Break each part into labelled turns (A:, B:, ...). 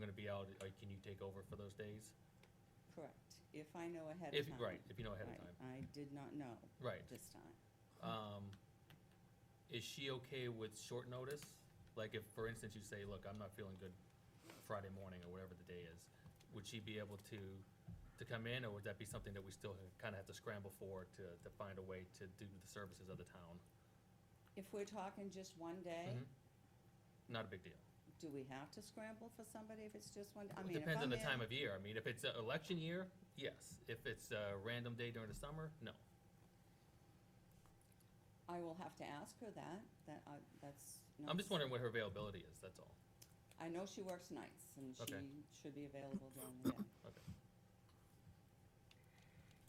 A: gonna be out, like, can you take over for those days?
B: Correct, if I know ahead of
A: If,
B: time.
A: right, if you know ahead of time,
B: Right, I did not know
A: right.
B: this time.
A: Um, is she okay with short notice? Like if, for instance, you say, look, I'm not feeling good Friday morning or whatever the day is, would she be able to, to come in, or would that be something that we still kinda have to scramble for to, to find a way to do the services of the town?
B: If we're talking just one day,
A: Mhm. Not a big deal.
B: do we have to scramble for somebody if it's just one? I
A: Mm-hmm. It
B: mean, if
A: depends on
B: I'm
A: the
B: in-
A: time of year. I mean, if it's an election year, yes. If it's a random day during the summer, no.
B: I will have to ask her that, that, I- that's. not-
A: I'm just wondering what her availability is, that's all.
B: I know she works nights and
A: Okay.
B: she should be available during the day.
A: Okay.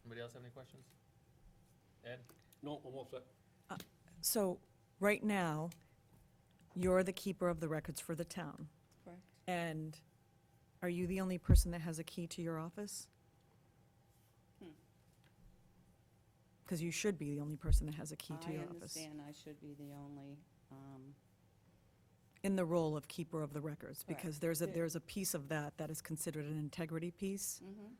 A: Anybody else have any questions? Ed?
C: No, I'm all set.
D: So, right now, you're the keeper of the records for the town,
B: Correct.
D: and are you the only person that has a key to your office?
B: Hmm.
D: Because you should be the only person that has a key to
B: I
D: your office.
B: understand I should be the only, um,
D: In the role of keeper of the records, because
B: Correct.
D: there's a,
B: Yeah.
D: there's a piece of that that is considered an integrity piece.
B: mhm.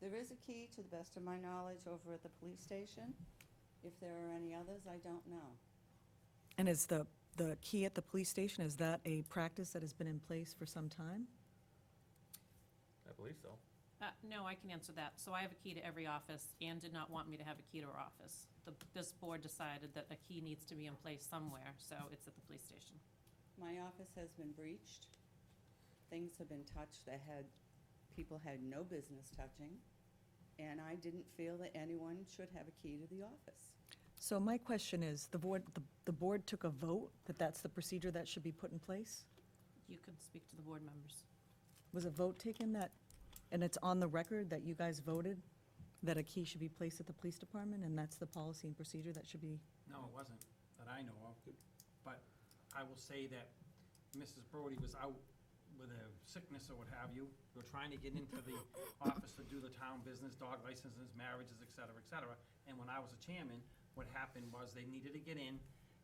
B: There is a key, to the best of my knowledge, over at the police station. If there are any others, I don't know.
D: And is the, the key at the police station, is that a practice that has been in place for some time?
A: I believe so.
E: Uh, No, I can answer that. So I have a key to every office. Anne did not want me to have a key to her office. The- This board decided that a key needs to be in place somewhere, so it's at the police station.
B: My office has been breached. Things have been touched that had, people had no business touching. And I didn't feel that anyone should have a key to the office.
D: So my question is, the board, the, the board took a vote that that's the procedure that should be put in place?
E: You can speak to the board members.
D: Was a vote taken that, and it's on the record that you guys voted that a key should be placed at the police department, and that's the policy and procedure that should be?
F: No, it wasn't, that I know of. But I will say that Mrs. Brody was out with a sickness or what have you. We were trying to get into the office to do the town business, dog licenses, marriages, et cetera, et cetera. And when I was a chairman, what happened was they needed to get in.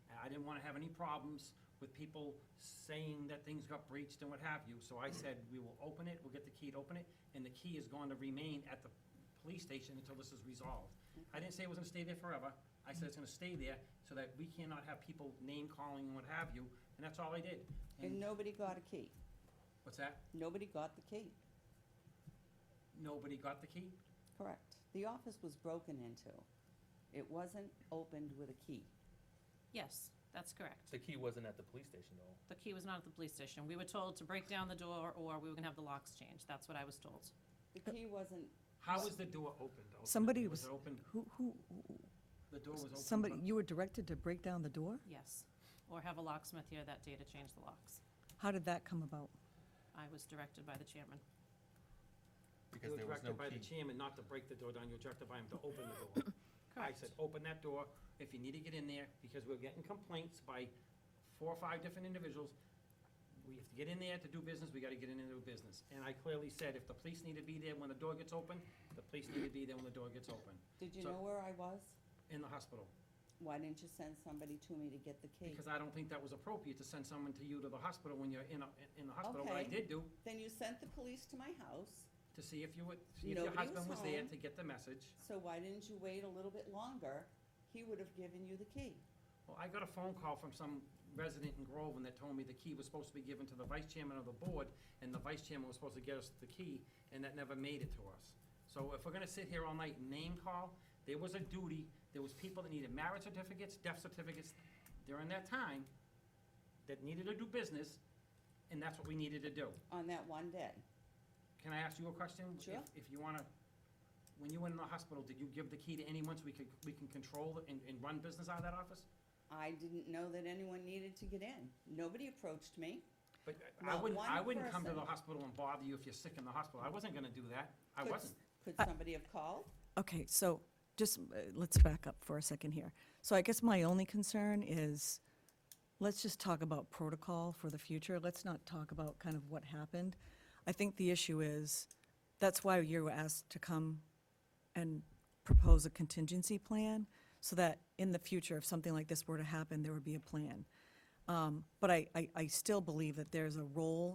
F: And I didn't want to have any problems with people saying that things got breached and what have you. So I said, we will open it, we'll get the key to open it, and the key is going to remain at the police station until this is resolved. I didn't say it was gonna stay there forever. I said it's gonna stay there so that we cannot have people name calling and what have you, and that's all I did.
B: And
F: And,
B: nobody got a key.
F: what's that?
B: Nobody got the key.
F: Nobody got the key?
B: Correct. The office was broken into. It wasn't opened with a key.
E: Yes, that's correct.
A: The key wasn't at the police station though.
E: The key was not at the police station. We were told to break down the door, or we were gonna have the locks changed. That's what I was told.
B: The key wasn't,
F: How was the door opened? ultimately?
D: Somebody was,
F: it opened,
D: who, who,
F: the door was opened?
D: somebody,
F: by-
D: you were directed to break down the door?
E: Yes. Or have a locksmith here that day to change the locks.
D: How did that come about?
E: I was directed by the chairman.
A: Because
F: You were
A: there was no
F: directed by the
A: key.
F: chairman not to break the door down, you were directed by him to open the door. I said, open that door if you need to get in there, because we're getting complaints by four or five different individuals. We have to get in there to do business, we gotta get in and do business. And I clearly said, if the police need to be there when the door gets open, the police need to be there when the door gets open,
B: did you
F: So-
B: know where I was?
F: in the hospital.
B: Why didn't you send somebody to me to get the key?
F: Because I don't think that was appropriate to send someone to you to the hospital when you're in, a- in the hospital. What I
B: Okay.
F: did do,
B: Then you sent the police to my house,
F: to see if you would, see if your
B: Nobody was
F: husband was there
B: home.
F: to get the message.
B: so why didn't you wait a little bit longer? He would have given you the key.
F: Well, I got a phone call from some resident in Groveland that told me the key was supposed to be given to the vice chairman of the board, and the vice chairman was supposed to get us the key, and that never made it to us. So if we're gonna sit here all night and name call, there was a duty, there was people that needed marriage certificates, death certificates during that time that needed to do business, and that's what we needed to do.
B: on that one day.
F: Can I ask you a question?
B: Sure.
F: If- If you wanna, when you went in the hospital, did you give the key to anyone so we could, we can control and, and run business out of that office?
B: I didn't know that anyone needed to get in. Nobody approached me.
F: But I- I
B: Not
F: wouldn't, I
B: one
F: wouldn't come to the
B: person.
F: hospital and bother you if you're sick in the hospital. I wasn't gonna do that. I
B: Could-
F: wasn't.
B: Could somebody have called?
D: Okay, so just, uh, let's back up for a second here. So I guess my only concern is, let's just talk about protocol for the future. Let's not talk about kind of what happened. I think the issue is, that's why you were asked to come and propose a contingency plan, so that in the future, if something like this were to happen, there would be a plan. Um, But I, I, I still believe that there's a role